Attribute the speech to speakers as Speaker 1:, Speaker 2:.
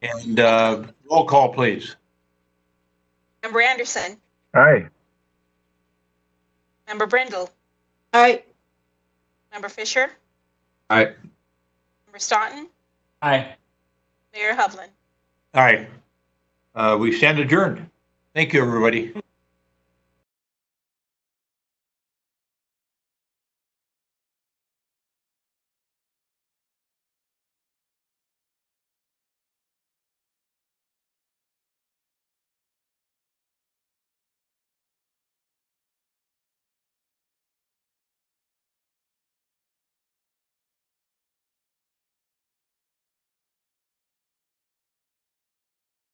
Speaker 1: And uh, roll call, please.
Speaker 2: Member Anderson.
Speaker 3: Aye.
Speaker 2: Member Brindle.
Speaker 4: Aye.
Speaker 2: Member Fisher.
Speaker 5: Aye.
Speaker 2: Member Staunton.
Speaker 6: Aye.
Speaker 2: Mayor Hovland.
Speaker 1: All right. Uh, We stand adjourned. Thank you, everybody.